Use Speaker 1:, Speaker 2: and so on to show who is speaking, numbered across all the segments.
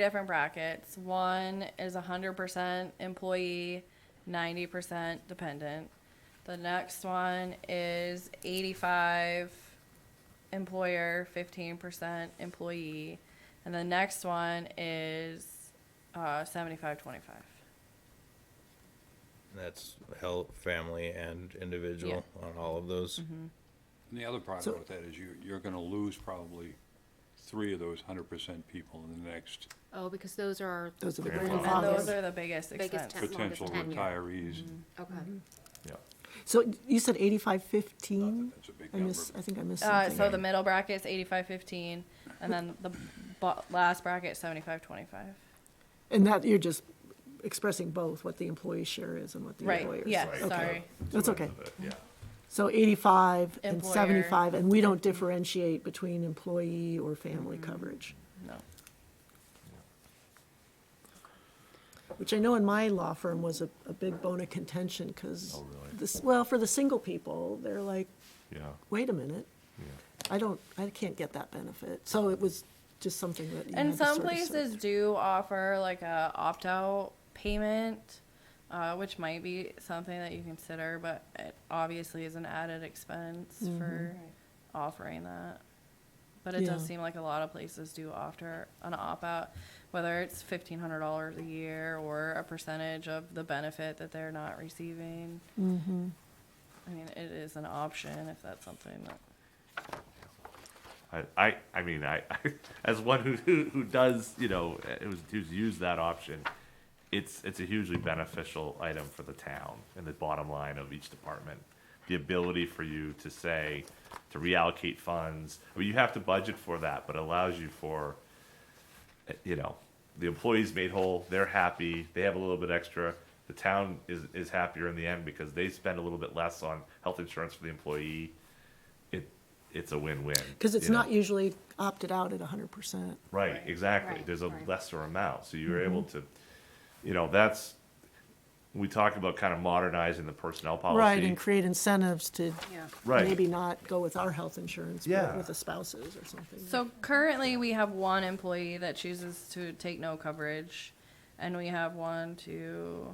Speaker 1: different brackets. One is hundred percent employee, ninety percent dependent. The next one is eighty-five employer, fifteen percent employee. And the next one is uh, seventy-five, twenty-five.
Speaker 2: That's health, family, and individual on all of those.
Speaker 3: And the other problem
Speaker 4: So-
Speaker 3: with that is you, you're gonna lose probably three of those hundred percent people in the next
Speaker 5: Oh, because those are.
Speaker 4: Those are the
Speaker 5: Very
Speaker 4: grandfathers.
Speaker 1: And
Speaker 5: long.
Speaker 1: those are the biggest
Speaker 5: Biggest
Speaker 1: expenses.
Speaker 5: That's long as
Speaker 3: potential
Speaker 5: tenure.
Speaker 3: retirees.
Speaker 5: Okay.
Speaker 4: So you said eighty-five fifteen?
Speaker 3: That's a big
Speaker 4: I
Speaker 3: number.
Speaker 4: miss, I think I missed
Speaker 1: Uh,
Speaker 4: something.
Speaker 1: so the middle bracket's eighty-five, fifteen, and then the bo- last bracket, seventy-five, twenty-five.
Speaker 4: And that, you're just expressing both, what the employee share is and what the
Speaker 1: Right,
Speaker 4: employer's.
Speaker 1: yeah,
Speaker 4: Okay.
Speaker 1: sorry.
Speaker 4: That's okay.
Speaker 2: Yeah.
Speaker 4: So eighty-five and
Speaker 1: Employer.
Speaker 4: seventy-five, and we don't differentiate between employee or family
Speaker 1: Mm-hmm.
Speaker 4: coverage,
Speaker 1: No.
Speaker 4: which I know in my law firm was a, a big bone of contention, because.
Speaker 6: Oh,
Speaker 4: This, well, for the single people, they're like,
Speaker 6: Yeah,
Speaker 4: wait a minute,
Speaker 6: yeah.
Speaker 4: I don't, I can't get that benefit. So it was just something that you had
Speaker 1: And
Speaker 4: to
Speaker 1: some
Speaker 4: sort of sort-
Speaker 1: places do offer like a opt out payment, uh, which might be something that you consider, but it obviously is an added expense
Speaker 4: Mm-hmm.
Speaker 1: for offering that. But it does
Speaker 4: Yeah.
Speaker 1: seem like a lot of places do offer an opt out, whether it's fifteen hundred dollars a year or a percentage of the benefit that they're not receiving. Mm-hmm. I mean, it is an option if that's something that.
Speaker 6: I, I, I mean, I, as one who, who, who does, you know, who's, who's used that option, it's, it's a hugely beneficial item for the town and the bottom line of each department. The ability for you to say, to reallocate funds, I mean, you have to budget for that, but it allows you for, eh, you know, the employees made whole, they're happy, they have a little bit extra. The town is, is happier in the end because they spend a little bit less on health insurance for the employee. It, it's a win-win.
Speaker 4: Because it's
Speaker 6: you know?
Speaker 4: not usually opted out at hundred percent.
Speaker 6: Right, exactly.
Speaker 5: Right,
Speaker 6: There's a
Speaker 5: right.
Speaker 6: lesser amount, so you're able
Speaker 4: Mm-hmm.
Speaker 6: to, you know, that's, we talked about kind of modernizing the personnel
Speaker 4: Right, and
Speaker 6: policy.
Speaker 4: create incentives to
Speaker 5: Yeah.
Speaker 6: Right.
Speaker 4: maybe not go with our health insurance, but
Speaker 6: Yeah.
Speaker 4: with the spouses or something.
Speaker 1: So currently, we have one employee that chooses to take no coverage, and we have one, two,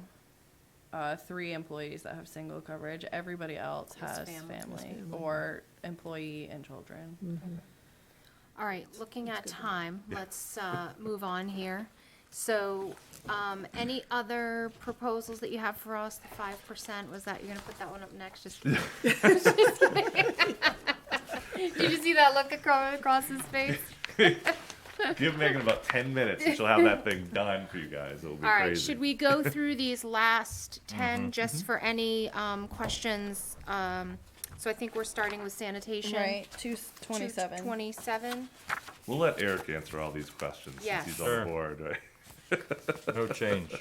Speaker 1: uh, three employees that have single coverage. Everybody else
Speaker 5: Has
Speaker 1: has
Speaker 5: family.
Speaker 1: family,
Speaker 5: Has
Speaker 4: family.
Speaker 1: or employee and children.
Speaker 5: All right, looking at time, let's uh, move on here. So um, any other proposals that you have for us? The five percent, was that, you're gonna put that one up next? Just kidding. Just kidding. Did you see that look across, across his face?
Speaker 6: Give Megan about ten minutes and she'll have that thing done for you guys. It'll be
Speaker 5: All right, should we
Speaker 6: crazy.
Speaker 5: go through these last
Speaker 4: Mm-hmm,
Speaker 5: ten just for any um, questions? Um, So I think we're starting with sanitation.
Speaker 1: two
Speaker 5: Two-
Speaker 1: twenty-seven.
Speaker 5: Twenty-seven?
Speaker 6: We'll let Eric answer all these questions since
Speaker 5: Yes.
Speaker 6: he's
Speaker 2: Sure.
Speaker 6: on board, right?
Speaker 2: No change.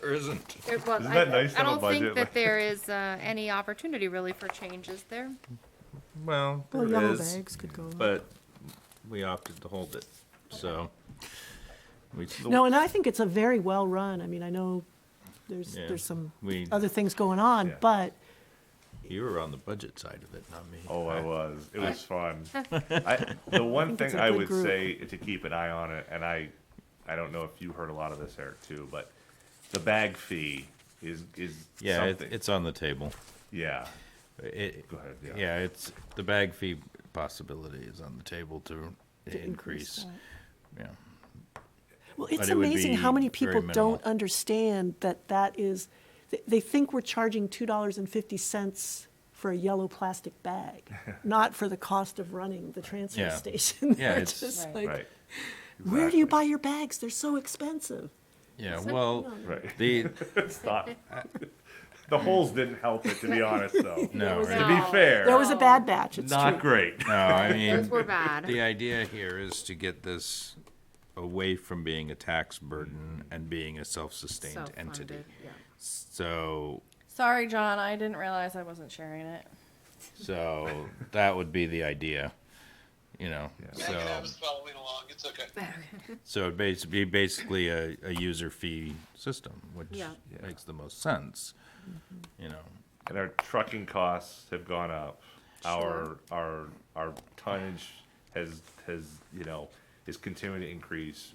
Speaker 2: There isn't.
Speaker 5: It was.
Speaker 6: Isn't
Speaker 5: I-
Speaker 6: that nice
Speaker 5: I
Speaker 6: on a
Speaker 5: don't think
Speaker 6: budget?
Speaker 5: that there is uh, any opportunity really for change, is there?
Speaker 2: Well,
Speaker 4: Well,
Speaker 2: there
Speaker 4: yellow
Speaker 2: is,
Speaker 4: bags could go. up.
Speaker 2: but we opted to hold it, so. we-
Speaker 4: No, and I think it's a very well-run, I mean, I know there's,
Speaker 2: Yeah.
Speaker 4: there's some
Speaker 2: We,
Speaker 4: other things going on,
Speaker 6: Yeah.
Speaker 4: but
Speaker 2: you were on the budget side of it, not me.
Speaker 6: Oh, I was. It was fun. I, the one
Speaker 4: it's
Speaker 6: thing
Speaker 4: a
Speaker 6: I
Speaker 4: good
Speaker 6: would
Speaker 4: group.
Speaker 6: say to keep an eye on it, and I, I don't know if you heard a lot of this, Eric, too, but the bag fee is is
Speaker 2: Yeah, it-
Speaker 6: something.
Speaker 2: it's on the table.
Speaker 6: yeah.
Speaker 2: It,
Speaker 6: Go ahead, yeah.
Speaker 2: yeah, it's, the bag fee possibility is on the table to increase. Yeah,
Speaker 4: Well, it's
Speaker 2: it would
Speaker 4: amazing how
Speaker 2: be
Speaker 4: many
Speaker 2: very
Speaker 4: people don't
Speaker 2: minimal.
Speaker 4: understand that that is, th- they think we're charging two dollars and fifty cents for a yellow plastic bag, not for the cost of running the transfer
Speaker 2: Yeah.
Speaker 4: station.
Speaker 2: Yeah,
Speaker 4: They're
Speaker 2: it's-
Speaker 4: just
Speaker 1: Right.
Speaker 4: like,
Speaker 6: right.
Speaker 4: Where do you
Speaker 6: Exactly.
Speaker 4: buy your bags? They're so expensive.
Speaker 2: yeah,
Speaker 4: It's like,
Speaker 2: well,
Speaker 4: no.
Speaker 6: Right.
Speaker 2: the,
Speaker 6: It's not. The holes didn't help it, to be honest, though.
Speaker 2: no,
Speaker 6: To
Speaker 2: it-
Speaker 6: be
Speaker 5: No.
Speaker 6: fair,
Speaker 4: That was a bad batch, it's true.
Speaker 6: not great.
Speaker 2: no, I
Speaker 5: Those
Speaker 2: mean,
Speaker 5: were bad.
Speaker 2: the idea here is to get this away from being a tax burden and being a self-sustained entity.
Speaker 5: Self-funded, yeah.
Speaker 2: So,
Speaker 1: Sorry, John, I didn't realize I wasn't sharing it.
Speaker 2: so that would be the idea, you know,
Speaker 7: Yeah, I can
Speaker 2: so,
Speaker 7: have us following along. It's okay.
Speaker 2: so it'd basi- be basically a, a user fee system, which
Speaker 5: Yeah. Mm-hmm.
Speaker 6: Yeah.
Speaker 2: makes the most sense, you know.
Speaker 6: And our trucking costs have gone up. Our, our, our tonnage has, has, you know, is continuing to increase.